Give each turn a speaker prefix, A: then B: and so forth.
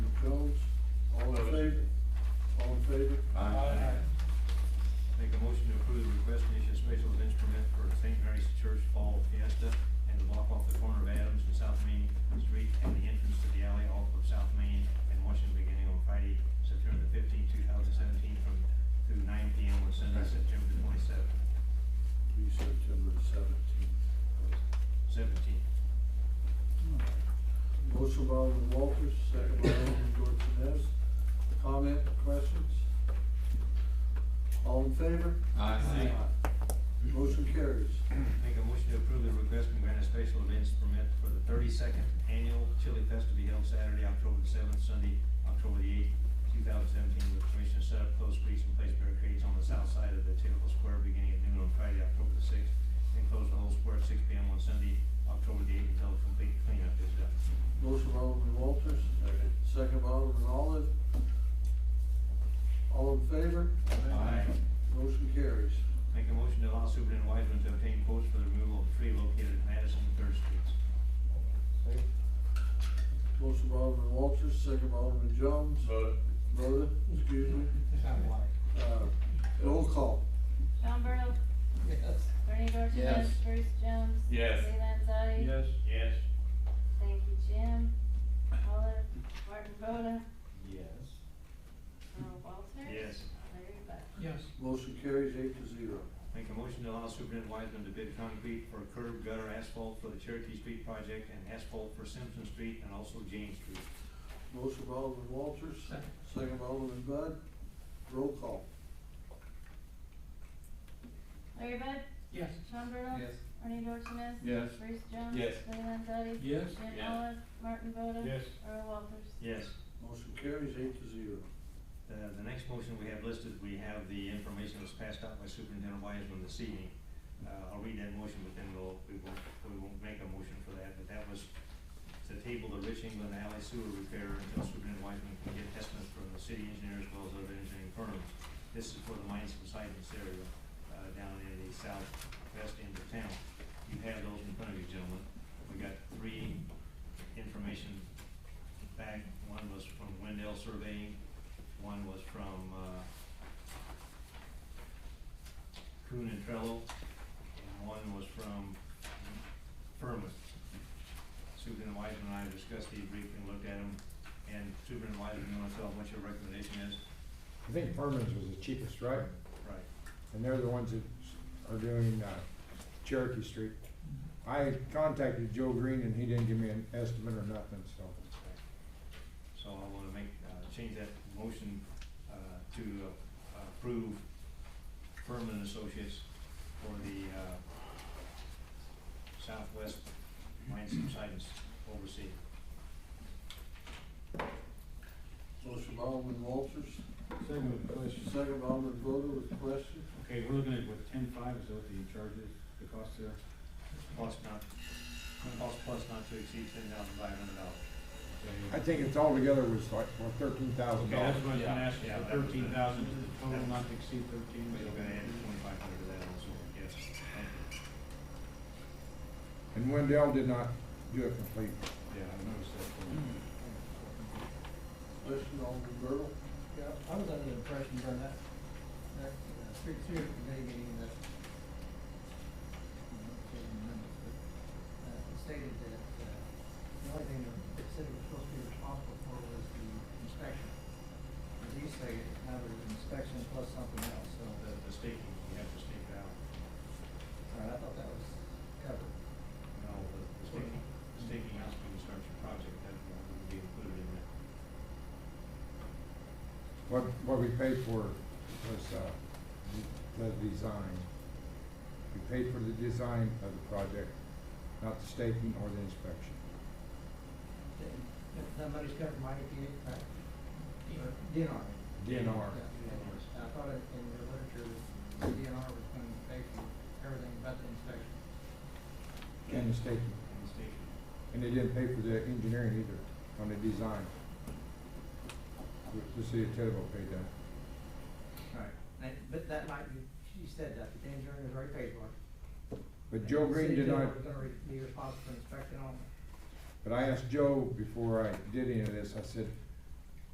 A: Motion by Alderman Walters, second by Alderman Dorsones. Comment, questions? All in favor?
B: Aye.
A: Motion carries.
C: Make a motion to approve the request from Granite Special Events Permit for the thirty-second annual Chili Fest to be held Saturday, October the seventh, Sunday, October the eighth, two thousand seventeen, with permission to set up closed streets and place barricades on the south side of the Temple Square beginning at noon on Friday, October the sixth, and close the whole square at six P M on Sunday, October the eighth, until a complete cleanup is done.
A: Motion by Alderman Walters, second by Alderman Olive. All in favor?
C: Aye.
A: Motion carries.
C: Make a motion to allow Superintendent Wiseman to obtain quotes for the removal of the tree located at Madison and Third Streets.
A: Motion by Alderman Walters, second by Alderman Jones.
D: Vote.
A: Vote, excuse me. Uh, Roll call.
E: Sean Burdell,
B: Yes.
E: Bernie
B: Yes.
E: Dorchenez, Bruce Jones.
D: Yes.
E: Lee Landzadi.
C: Yes.
E: Thank you, Jim. Olive, Martin Boda,
C: Yes.
E: Earl Walters.
C: Yes.
E: Larry Bud.
B: Yes.
A: Motion carries eight to zero.
C: Make a motion to allow Superintendent Wiseman to bid concrete for curb gutter asphalt for the Cherokee Street project and asphalt for Simpson Street and also James Street.
A: Motion by Alderman Walters,
B: Second.
A: second by Alderman Bud. Roll call.
E: Larry Bud,
B: Yes.
E: Sean Burdell.
B: Yes.
E: Bernie Dorchenez.
D: Yes.
E: Bruce Jones.
D: Yes.
E: Lee Landzadi.
B: Yes.
E: Jim
D: Yes.
E: Olive, Martin Boda.
D: Yes.
E: Earl Walters.
C: Yes.
A: Motion carries eight to zero.
C: The, Uh, the next motion we have listed, we have the information that was passed out by Superintendent Wiseman this evening. Uh, I'll read that motion, but then we'll, we won't, we won't make a motion for that, but that was to table the Rich England Alley sewer repair until Superintendent Wiseman can get estimates from the city engineer as well as other engineering firms. This is for the mines subsidence area, uh, down in the southwest end of town. You have those in front of you, gentlemen. We got three information back. One was from Wendell Surveying, one was from, uh, Coon and Trello, and one was from Furman. Superintendent Wiseman and I discussed these briefly, and looked at them, and Superintendent Wiseman, you wanna tell them what your recommendation is?
F: I think Furman's was the cheapest, right?
C: Right.
F: And they're the ones that are doing uh, Cherokee Street. I contacted Joe Green and he didn't give me an estimate or nothing, so.
C: So I wanna make, uh, change that motion, uh, to uh, approve Furman and Associates for the, uh, Southwest Mine Subsidence Oversee.
A: Motion by Alderman Walters,
G: Second question.
A: second by Alderman Boda with the question.
G: Okay, we're looking at what, ten five is what the charges, the cost there?
C: Plus not, cost plus not to exceed ten thousand five hundred dollars.
F: I think it's altogether was like, what, thirteen thousand
G: Okay,
F: dollars?
G: that's what I was gonna ask,
C: Yeah, yeah, that was the-
G: thirteen thousand is the total, not to exceed thirteen.
C: We're gonna add twenty-five hundred to that also, yes, thank you.
F: And Wendell did not do it complete.
G: Yeah, I noticed
C: Hmm.
G: that.
A: Question, Alderman Bertle.
H: Yeah, I was under the impression during that, that uh, street sewer committee meeting that, I can't remember, but, uh, it stated that, uh, the only thing the city was supposed to be responsible for was the inspection. As you say, now there's an inspection plus something else, so,
C: The, the staking, you have to stake it out.
H: all right, I thought that was covered.
C: No, the the staking, the staking out when you start your project, that would be included in that.
F: What, what we paid for was uh, the design. We paid for the design of the project, not the staking or the inspection.
H: Then- If that money's covered by EPA, right? Or DNR.
F: DNR.
H: Yeah, I thought it- in the literature, the DNR was going to pay for everything but the inspection.
F: And the staking.
C: And the staking,
F: And they didn't pay for the engineering either on the design. The- The city of Tattletale paid that.
H: Right. But that might be, she said that, but the engineering is already paid for. it.
F: But Joe
H: And the
F: Green
H: city
F: did not,
H: was gonna re- be responsible for inspecting all.
F: but I asked Joe before I did any of this, I said,